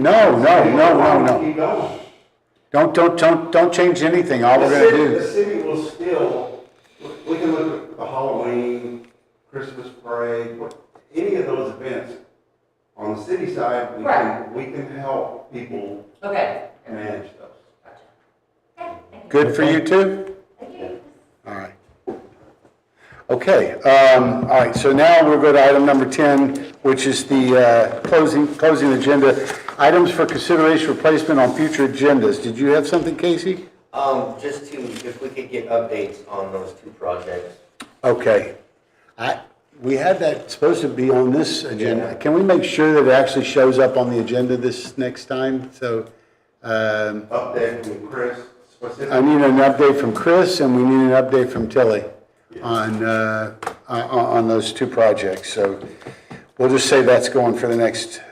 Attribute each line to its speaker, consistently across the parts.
Speaker 1: No, no, no, no, no.
Speaker 2: Keep going.
Speaker 1: Don't, don't, don't, don't change anything. All
Speaker 2: The
Speaker 1: we're gonna
Speaker 2: city, the
Speaker 1: do,
Speaker 2: city will still, we can look at the Halloween, Christmas parade, what- any of those events. On the city side, we can,
Speaker 3: Right.
Speaker 2: we can help people
Speaker 3: Okay.
Speaker 2: manage those.
Speaker 3: Gotcha. Okay, thank you.
Speaker 1: good for you too?
Speaker 3: Thank you.
Speaker 1: All right. Okay, um, all right, so now we'll go to item number 10, which is the uh, closing, closing agenda. Items for consideration replacement on future agendas. Did you have something, Casey?
Speaker 4: Um, just to, if we could get updates on those two projects.
Speaker 1: Okay. I, we had that supposed to be on this agenda. Can we make sure that it actually shows up on the agenda this next time? So, um,
Speaker 2: Update from Chris
Speaker 1: I
Speaker 2: specifically.
Speaker 1: need an update from Chris, and we need an update from Tilly on, uh, on, on those two projects. So we'll just say that's going for the next,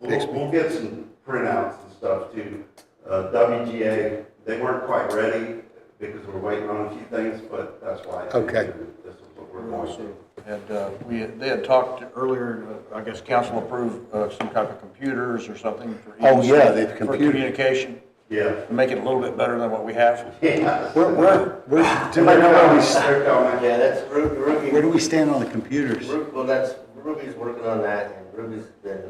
Speaker 2: We'll, we'll get some printouts and stuff too. Uh, WGA, they weren't quite ready because we're waiting on a few things, but that's why. I think
Speaker 1: Okay.
Speaker 2: This is what we're going to.
Speaker 5: And uh, we, had- they had talked earlier, uh, I guess council approved uh, some type of computers or something for.
Speaker 1: Oh,
Speaker 5: each-
Speaker 1: yeah, they've
Speaker 5: For
Speaker 1: computer-
Speaker 5: communication,
Speaker 2: Yeah.
Speaker 5: to make it a little bit better than what we have.
Speaker 2: Yeah.
Speaker 1: where, where, where, do we know where we, s-
Speaker 2: They're coming.
Speaker 4: Yeah, that's Ru-
Speaker 1: where do
Speaker 4: Ruby,
Speaker 1: we stand on the computers?
Speaker 4: Ru- well, that's, Ruby's working on that, and Ruby's been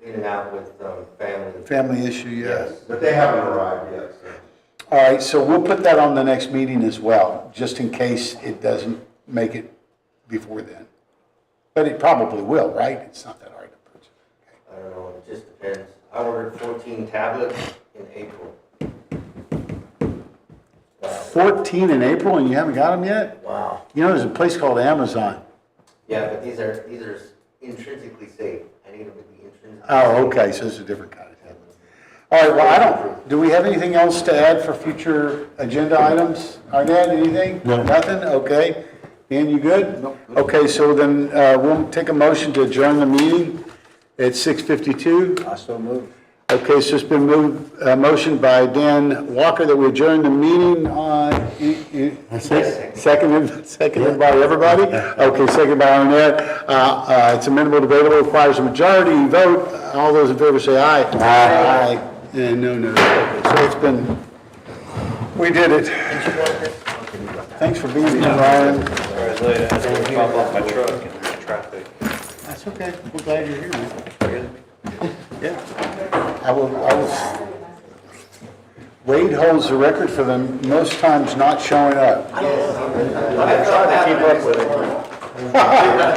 Speaker 4: in and out with, um, family.
Speaker 1: Family issue, yeah.
Speaker 4: Yes.
Speaker 2: But they haven't arrived yet, so.
Speaker 1: All right, so we'll put that on the next meeting as well, just in case it doesn't make it before then. But it probably will, right? It's not that hard to purchase.
Speaker 4: I don't know, it just depends. I ordered fourteen tablets in April. Wow.
Speaker 1: 14 in April, and you haven't got them yet?
Speaker 4: Wow.
Speaker 1: You know, there's a place called Amazon.
Speaker 4: Yeah, but these are, these are intrinsically safe. I need them to be intrinsically.
Speaker 1: Oh, okay, so it's a different kind of tablet. All right, well, I don't, do we have anything else to add for future agenda items? Arnett, anything? No. Nothing? Okay. Dan, you good? No. Okay, so then uh, we'll take a motion to adjourn the meeting at 6:52.
Speaker 5: I so moved.
Speaker 1: Okay, so it's been moved, uh, motion by Dan Walker that we adjourn the meeting on, seconded, seconded by everybody? Okay, seconded by Arnett. Uh, uh, It's amendable, debatable, requires a majority vote. All those in favor say aye. Aye. And no, no. Okay, So it's been, we did it. Thanks for being here, Ryan. That's okay. We're glad you're here, man. Yeah. I will, I will. Wade holds the record for the most times not showing up.
Speaker 4: I tried to keep up with it.